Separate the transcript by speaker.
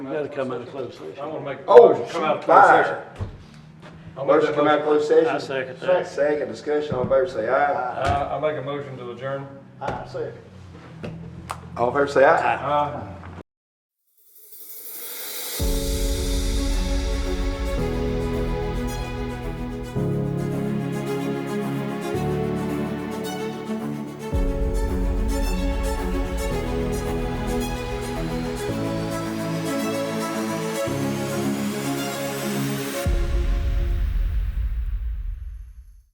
Speaker 1: You gotta come out of closed session.
Speaker 2: I want to make. a
Speaker 3: Oh,
Speaker 2: motion to come out of
Speaker 3: shoot,
Speaker 2: closed
Speaker 3: fire.
Speaker 2: session. I'll make
Speaker 3: Motion
Speaker 2: that
Speaker 3: to come out of
Speaker 2: motion.
Speaker 3: closed session?
Speaker 1: I second that.
Speaker 3: Second, discussion, all in favor say aye.
Speaker 2: I, I make a motion to adjourn.
Speaker 4: I second.
Speaker 3: All in favor say aye.
Speaker 2: Aye.